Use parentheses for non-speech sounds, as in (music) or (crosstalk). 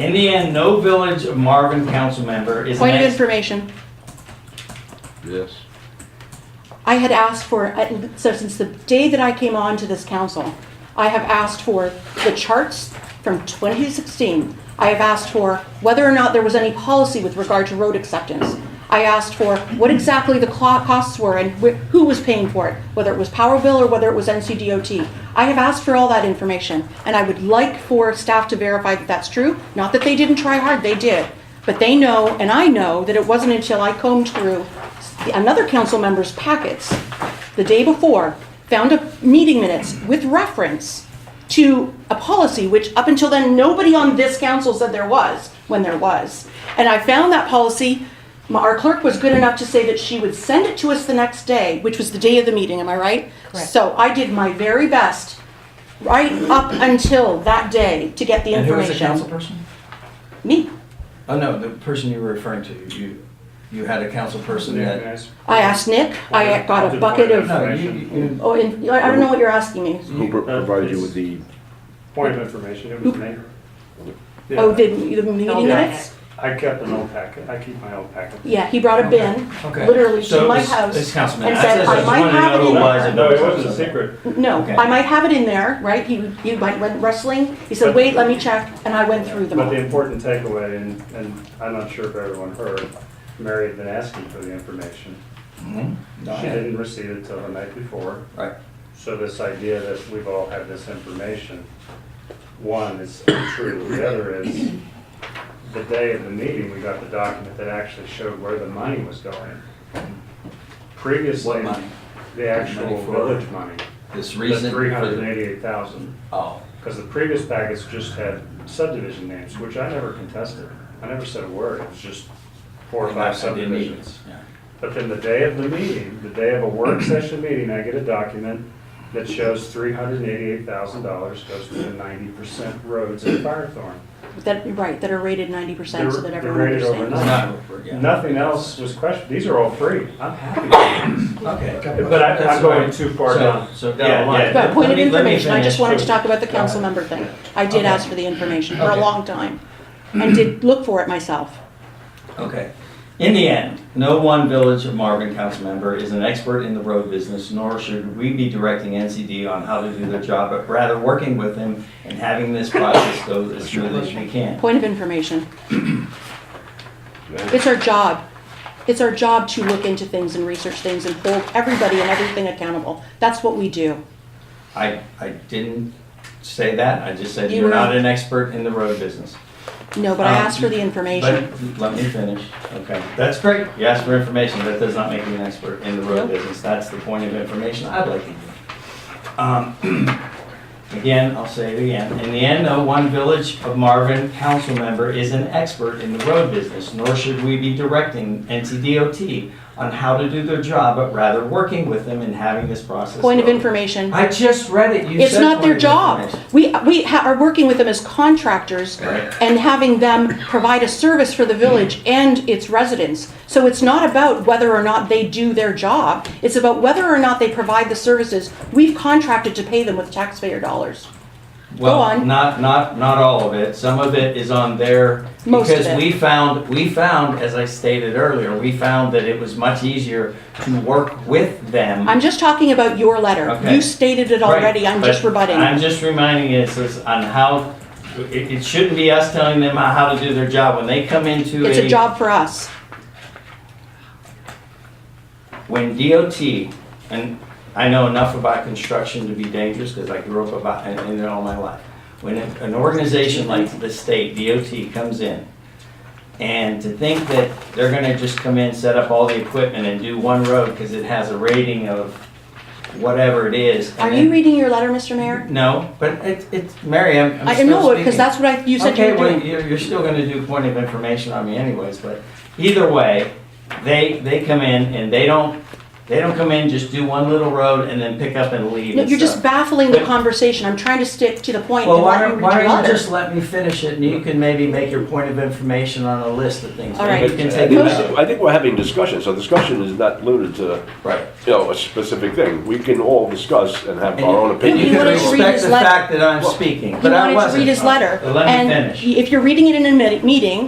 In the end, no Village of Marvin council member is Point of an information. Yes. I had asked for, so since the day that I came on to this council, I have asked for the charts from 2016. I have asked for whether or not there was any policy with regard to road acceptance. I asked for what exactly the clo- costs were and wh- who was paying for it, whether it was Power Bill or whether it was NCDOT. I have asked for all that information, and I would like for staff to verify that that's true. Not that they didn't try hard, they did. But they know, and I know, that it wasn't until I combed through another council member's packets the day before, found a meeting minutes with reference to a policy which up until then, nobody on this council said there was, when there was. And I found that policy, my- our clerk was good enough to say that she would send it to us the next day, which was the day of the meeting, am I right? Correct. So I did my very best, right up until that day, to get the And who was information. the council person? Me. Oh, no, the person you were referring to, you, you had a council person that. I asked Nick, I got a bucket of, No, you, you, oh, and I don't know what you're asking me. Who pro- provided you with the, Point of information, it was me. Yeah. Oh, did, the meeting Yeah. minutes? I kept an old packet, I keep my old packet. Yeah, he brought a bin, okay. literally So to it my was- It's house. council and member. said, That's- "I I just might wanted to know have it who in was and who No, it wasn't a secret. No, Okay. I might have it in there, right? He, he might went wrestling, he said, But- wait, let me check, and I went through them But the all. important takeaway, and, and I'm not sure if everyone heard, Mary had been asking for the information. Mhm. No, I She had it. didn't receive it till the night before. Right. So this idea that we've all had this information, one is untrue, the other is, the day of the meeting, we got the document that actually showed where the money was going. What Previously, money? the actual Money for- village money, This the reason. for three the- hundred and eighty-eight thousand. Oh, Because the previous packets just had subdivision names, which I never contested. I never said a word, it was just four or I- I five didn't need subdivisions. it. Yeah. But then the day of the meeting, the day of a work session meeting, I get a document that shows three hundred and eighty-eight thousand dollars goes to the ninety percent roads in Firethorn. That, right, that are rated ninety percent so They're- that they're everyone rated understands. It's overnight. not, yeah. Nothing else was questioned, these are all free, I'm happy with these. Okay. But I- I'm That's going fine. too far So- down. So Yeah, down the line. yeah. But point Let of me- let me information, I just finish. wanted So- to talk about the Go council ahead. member thing. I did Okay. ask for the information for a Okay. long time, and did look for it myself. Okay. In the end, no one Village of Marvin council member is an expert in the road business, nor should we be directing NCD on how to do their job, but rather working with them and having this process go as smooth as we can. Point of information. It's our job. It's our job to look into things and research things and hold everybody and everything accountable. That's what we do. I, I didn't say that, I just said You you're were- not an expert in the road business. No, but I Um, asked for the information. But Let me finish, okay. That's great, you asked for information, that does not make you an expert in the road Nope. business, that's the point of information I'd like to give. Um, (clears throat) Again, I'll say it again, in the end, no one Village of Marvin council member is an expert in the road business, nor should we be directing NCDOT on how to do their job, but rather working with them and having this process. Point of go. information. I just read it, you said. It's not their point of job. information. We, we ha- are working with them as contractors Right. and having them provide a service for the village and its residents. So it's not about whether or not they do their job. It's about whether or not they provide the services we've contracted to pay them with taxpayer dollars. Well, on. not, not, not all of it. Some of it is on their, Most of because it. we found, we found, as I stated earlier, we found that it was much easier to work with them. I'm just talking about your letter. Okay. You stated it Right, already, I'm but just rebutting. I'm just reminding us is on how, it, it shouldn't be us telling them how to do their job. When they come into It's a job for us. when DOT, and I know enough about construction to be dangerous because I grew up about, in- in it all my life. When an an organization like the state, DOT, comes in, and to think that they're gonna just come in, set up all the equipment and do one road because it has a rating of whatever it is. and Are then- you reading your letter, Mr. Mayor? No, but it's, it's, Mary, I'm, I'm I still know, speaking. because that's what I, you said Okay, you were well, doing. you're, you're still gonna do point of information on me anyways, but either way, they, they come in and they don't They don't come in, just do one little road and then pick up and leave. No, and You're just stuff. baffling the But- conversation. I'm trying to stick to the point. Well, and why not don't, read why your don't letter. you just let me finish it and you can maybe make your point of information on a list of things. All Maybe right. You can I take think it this- out. I think we're having discussion, so discussion is not limited to, Right. you know, a specific thing. We can all discuss and have And our own you- and opinion. you He can wanted to read respect his the letter. fact that I'm speaking, He but I wanted to wasn't. read his letter. Let me finish. And if you're reading it in a mi- meeting,